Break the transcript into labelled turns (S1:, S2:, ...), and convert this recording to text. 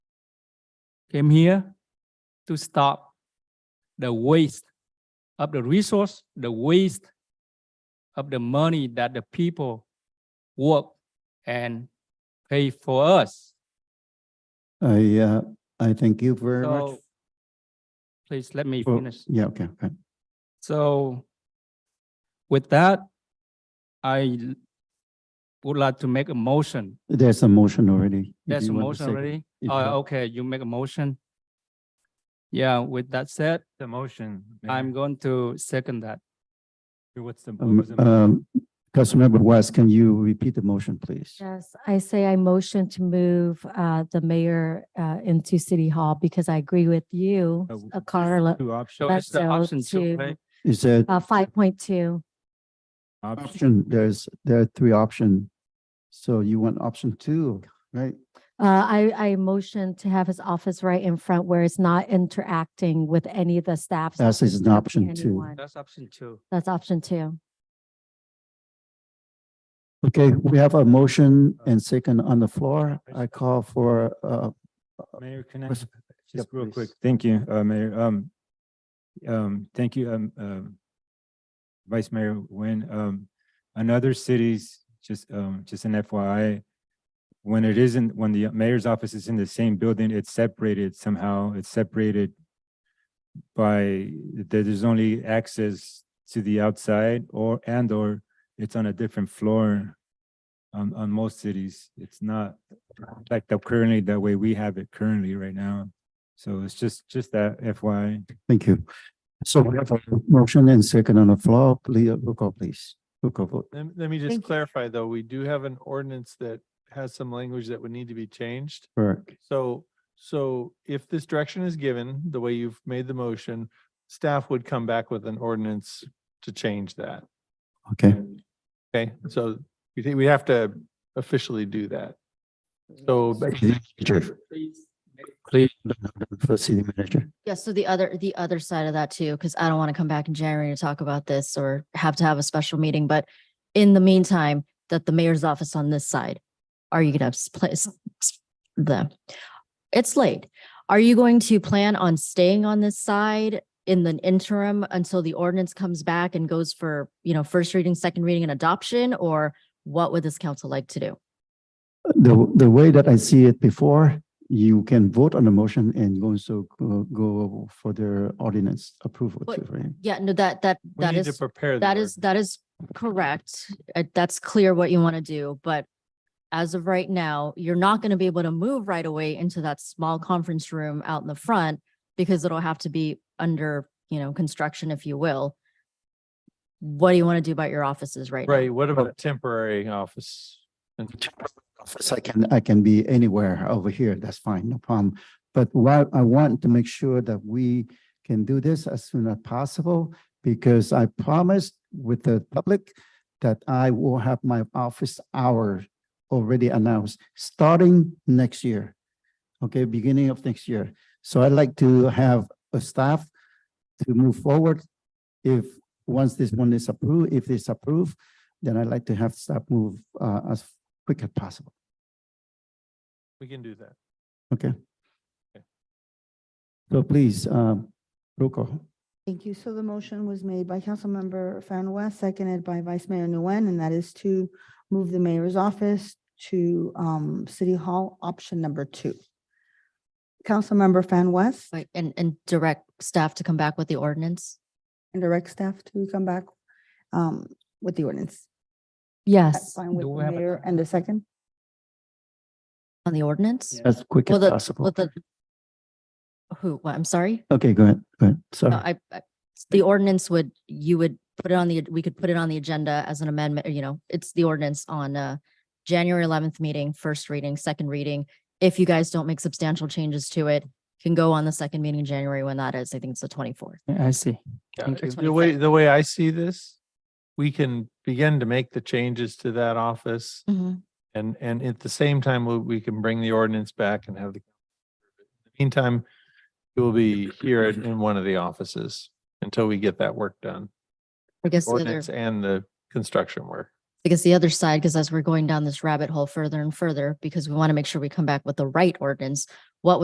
S1: came here to stop the waste of the resource, the waste of the money that the people work and pay for us.
S2: I, uh, I thank you very much.
S1: So please let me
S2: for-
S1: finish.
S2: Yeah, okay, okay.
S1: So with that, I l- would like to make a motion.
S2: There's a motion already. if
S1: There's a
S2: you want to
S1: motion
S2: second-
S1: already?
S2: if you-
S1: Oh, okay, you make a motion. Yeah, with that said,
S3: The motion. Mayor.
S1: I'm going to second that.
S3: What's the? what was
S2: Um,
S3: the mo-
S2: um, Councilmember West, can you repeat the motion, please?
S4: Yes, I say I motion to move uh, the mayor uh, into City Hall because I agree with you,
S3: Uh, w-
S4: uh, Carla,
S3: Two options,
S1: So it's the
S4: Let's go
S1: option two,
S4: to-
S1: right?
S2: Is there
S4: uh, five point two.
S3: option,
S2: option, there's, there are three options. So you want option two, right?
S4: Uh, I, I motion to have his office right in front where it's not interacting with any of the staff. so
S2: That's
S4: it's
S2: an
S4: not
S2: option two.
S4: anyone.
S1: That's option two.
S4: That's option two.
S2: Okay, we have a motion and second on the floor. I call for, uh,
S3: Mayor, can I,
S2: Res-
S3: just real
S2: please.
S3: quick, thank you, uh, Mayor, um, um, thank you, um, um, Vice Mayor Nguyen, um, in other cities, just, um, just an FYI, when it isn't, when the mayor's office is in the same building, it's separated somehow, it's separated by, there- there's only access to the outside or, and or it's on a different floor um, on, on most cities. It's not like the currently, the way we have it currently right now. So it's just, just that FYI.
S2: thank you. So we have a motion and second on the floor. Please, roll call, please. Roll call vote.
S5: Let, let me just
S4: Thank you.
S5: clarify, though, we do have an ordinance that has some language that would need to be changed.
S2: Correct.
S5: So, so if this direction is given, the way you've made the motion, staff would come back with an ordinance to change that.
S2: Okay,
S5: Okay, so we think we have to officially do that. So, but
S2: Sure.
S1: Please,
S2: for city manager.
S6: Yeah, so the other, the other side of that too, because I don't want to come back in January to talk about this or have to have a special meeting, but in the meantime, that the mayor's office on this side, are you gonna have s- pla- s- s- the, it's late. Are you going to plan on staying on this side in the interim until the ordinance comes back and goes for, you know, first reading, second reading and adoption? Or what would this council like to do?
S2: The, the way that I see it before, you can vote on the motion and also go, go for their ordinance approval
S6: But-
S2: too, right?
S6: Yeah, no, that, that,
S5: we
S6: that
S5: need to
S6: is,
S5: prepare. the
S6: that is,
S5: ordinance.
S6: that is correct. Uh, That's clear what you want to do, but as of right now, you're not going to be able to move right away into that small conference room out in the front because it'll have to be under, you know, construction, if you will. What do you want to do about your offices right now?
S5: Right, what about temporary office? And
S2: Office, I can, I can be anywhere over here, that's fine, no problem. But what I want to make sure that we can do this as soon as possible, because I promised with the public that I will have my office hour already announced, starting next year. Okay, beginning of next year. So I'd like to have a staff to move forward. If, once this one is approved, if it's approved, then I'd like to have staff move uh, as quick as possible.
S5: we can do that.
S2: Okay. So please, um, roll call.
S7: Thank you. So the motion was made by Councilmember Fan West, seconded by Vice Mayor Nguyen, and that is to move the mayor's office to um City Hall, option number two. Councilmember Fan West
S6: Like, and, and direct staff to come back with the ordinance?
S7: and direct staff to come back um with the ordinance. That's
S6: Yes,
S7: fine with
S1: Do we
S7: the
S1: have a
S7: mayor and the second.
S6: on the ordinance?
S2: As quick
S6: Well,
S2: as
S6: the-
S2: possible.
S6: With the who, what, I'm sorry?
S2: Okay, go ahead, go ahead.
S6: No,
S2: Sorry.
S6: I, I- the ordinance would, you would put it on the, we could put it on the agenda as an amendment, or, you know, it's the ordinance on uh January eleventh meeting, first reading, second reading. If you guys don't make substantial changes to it, can go on the second meeting in January when that is. I think it's the twenty-fourth.
S1: I see.
S5: Yeah,
S1: Thank you.
S5: The way, the way I see this, we can begin to make the changes to that office. And, and at the same time, we, we can bring the ordinance back and have the. Meantime, it will be here in in one of the offices until we get that work done.
S6: I guess the other,
S5: Ordinance and the construction work.
S6: I guess the other side, because as we're going down this rabbit hole further and further, because we want to make sure we come back with the right ordinance,